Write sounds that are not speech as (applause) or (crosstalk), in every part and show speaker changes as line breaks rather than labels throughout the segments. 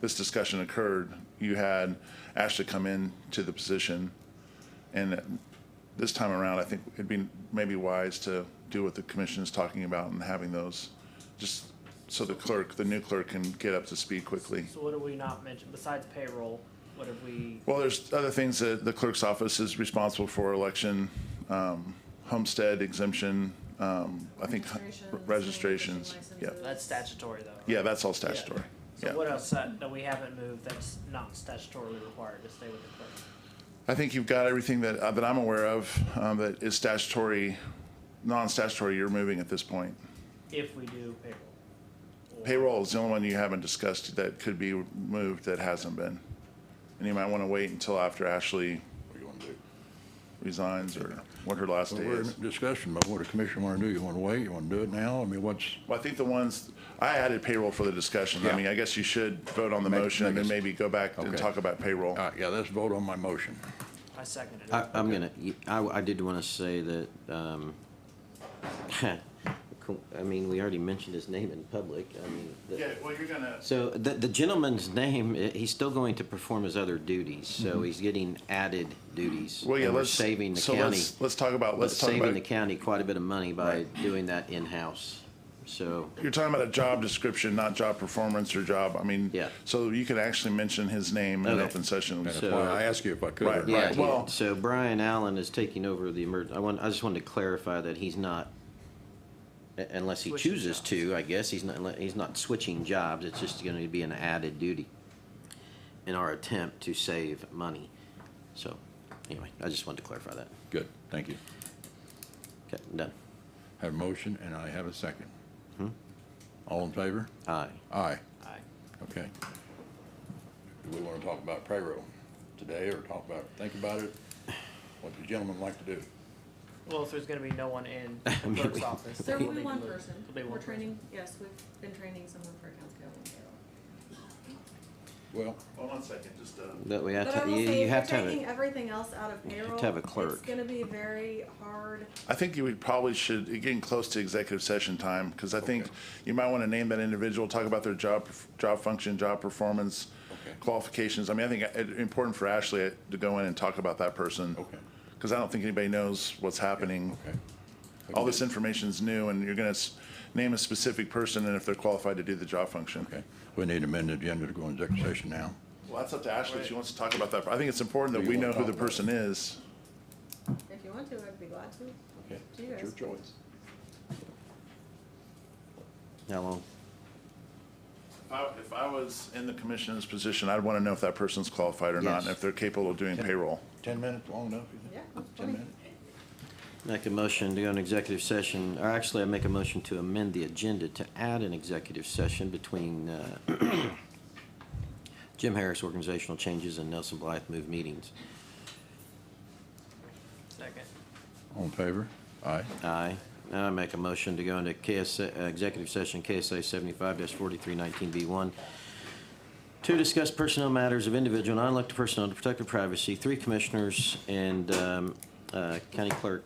this discussion occurred, you had Ashley come in to the position. And this time around, I think it'd be maybe wise to do what the commission is talking about and having those, just so the clerk, the new clerk can get up to speed quickly.
So what have we not mentioned, besides payroll, what have we,
Well, there's other things that the clerk's office is responsible for, election, um, homestead exemption, um, I think
Registrations,
registrations.
liquor
Yeah,
licenses.
that's statutory though. right?
yeah, that's all statutory.
So
Yeah.
what else uh, that, that we haven't moved that's not statutorily required to stay with the clerk?
I think you've got everything that, uh, that I'm aware of, um, that is statutory, non-statutory you're moving at this point.
If we do payroll? Or-
Payroll is the only one you haven't discussed that could be moved that hasn't been. And you might want to wait until after Ashley
What do you want to do?
resigns or what her last
So
day
We're in
is.
discussion about what the commission want to do. You want to wait? You want to do it now? I mean, what's,
Well, I think the ones, I added payroll for the discussion. I
Yeah.
mean, I guess you should vote on the
Make-
motion and
make
then
us-
maybe go back and
Okay.
talk about payroll.
all right, yeah, let's vote on my motion.
I second it.
I, I'm gonna, I, I did wanna say that, um, (laughs) I mean, we already mentioned his name in public, I mean, the-
well, you're gonna.
so the, the gentleman's name, eh, he's still going to perform his other duties, so he's getting added duties.
Mm-hmm. Well, yeah,
and we're
let's.
Saving the
so
county,
let's- Let's talk about, let's talk
saving
about,
the county quite a bit of money by doing that in-house, so,
you're talking about a job description, not job performance or job, I mean.
Yeah.
So you could actually mention his name in
Okay.
open session.
That's
So- uh,
why I asked you if I could.
Right,
or not.
yeah,
right. well-
he- so Brian Allen is taking over the emerg, I want, I just wanted to clarify that he's not, a- unless he
Switching
chooses
jobs.
to, I guess, he's not, he's not switching jobs, it's just gonna be an added duty in our attempt to save money. So, anyway, I just wanted to clarify that.
Good, thank you.
Okay, I'm done.
Have a motion and I have a second.
Hmm?
All in favor?
Aye.
Aye,
Aye.
okay. Do we want to talk about payroll today or talk about, think about it? What the gentleman like to do?
Well, if there's gonna be no one in
(laughs) I mean,
the clerk's
we-
office.
There
then
will be
we'll
one
make a move.
person.
There'll be one
We're
person.
training, yes, we've been training someone for accounts payable and payroll.
Well,
Hold on a second, just, uh.
That way, I
But I
ta-
will
you,
say,
you have
if
to
you're
have
taking
it,
everything else out of
have
payroll.
to have a
It's
clerk.
gonna be very hard.
I think you would probably should, getting close to executive session time, because I think you might want to name that individual, talk about their job, job function, job performance,
Okay.
qualifications. I mean, I think uh, it's important for Ashley uh, to go in and talk about that person.
Okay.
Because I don't think anybody knows what's happening.
okay.
All this information's new, and you're going to name a specific person and if they're qualified to do the job function.
Okay, we need to amend the agenda to go into executive session now.
Well, that's up to Ashley. if She wants to talk about that. I think it's important that we know who the person is.
If you want to, I'd be glad to.
Okay,
Do you
it's your
guys-
choice.
how long?
If I- If I was in the commissioner's position, I'd want to know if that person's qualified or not, and
Yes.
if they're capable of doing payroll.
Ten minutes, long enough? you think?
Yeah, that's
Ten
fine.
minutes?
Make a motion to go into executive session, or actually, I make a motion to amend the agenda to add an executive session between uh, (clears throat) Jim Harris organizational changes and Nelson Blythe move meetings.
Second.
All in favor? Aye.
Aye. Now I make a motion to go into KSA, uh, executive session KSA seventy-five forty-three nineteen B one to discuss personnel matters of individual non-elected personnel to protect their privacy. Three commissioners and um, uh, County Clerk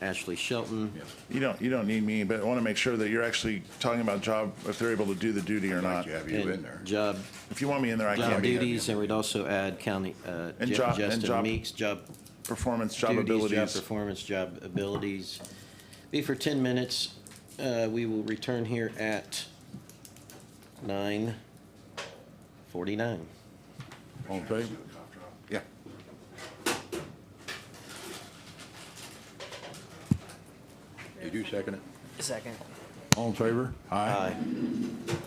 Ashley Shelton.
Yes.
You don't, you don't need me, but I want to make sure that you're actually talking about job, if they're able to do the duty or
Glad
not.
you have you
and
in there.
Job
If you want me in there, I
job
can be.
duties, and we'd also add county, uh,
And
Ju-
job- and
Justin
job
Meeks, job
Performance, job
duties, job
abilities.
performance, job abilities. Be for ten minutes. Uh, we will return here at nine forty-nine.
All in favor? Yeah. Did you second it?
Second.
All in favor? Aye.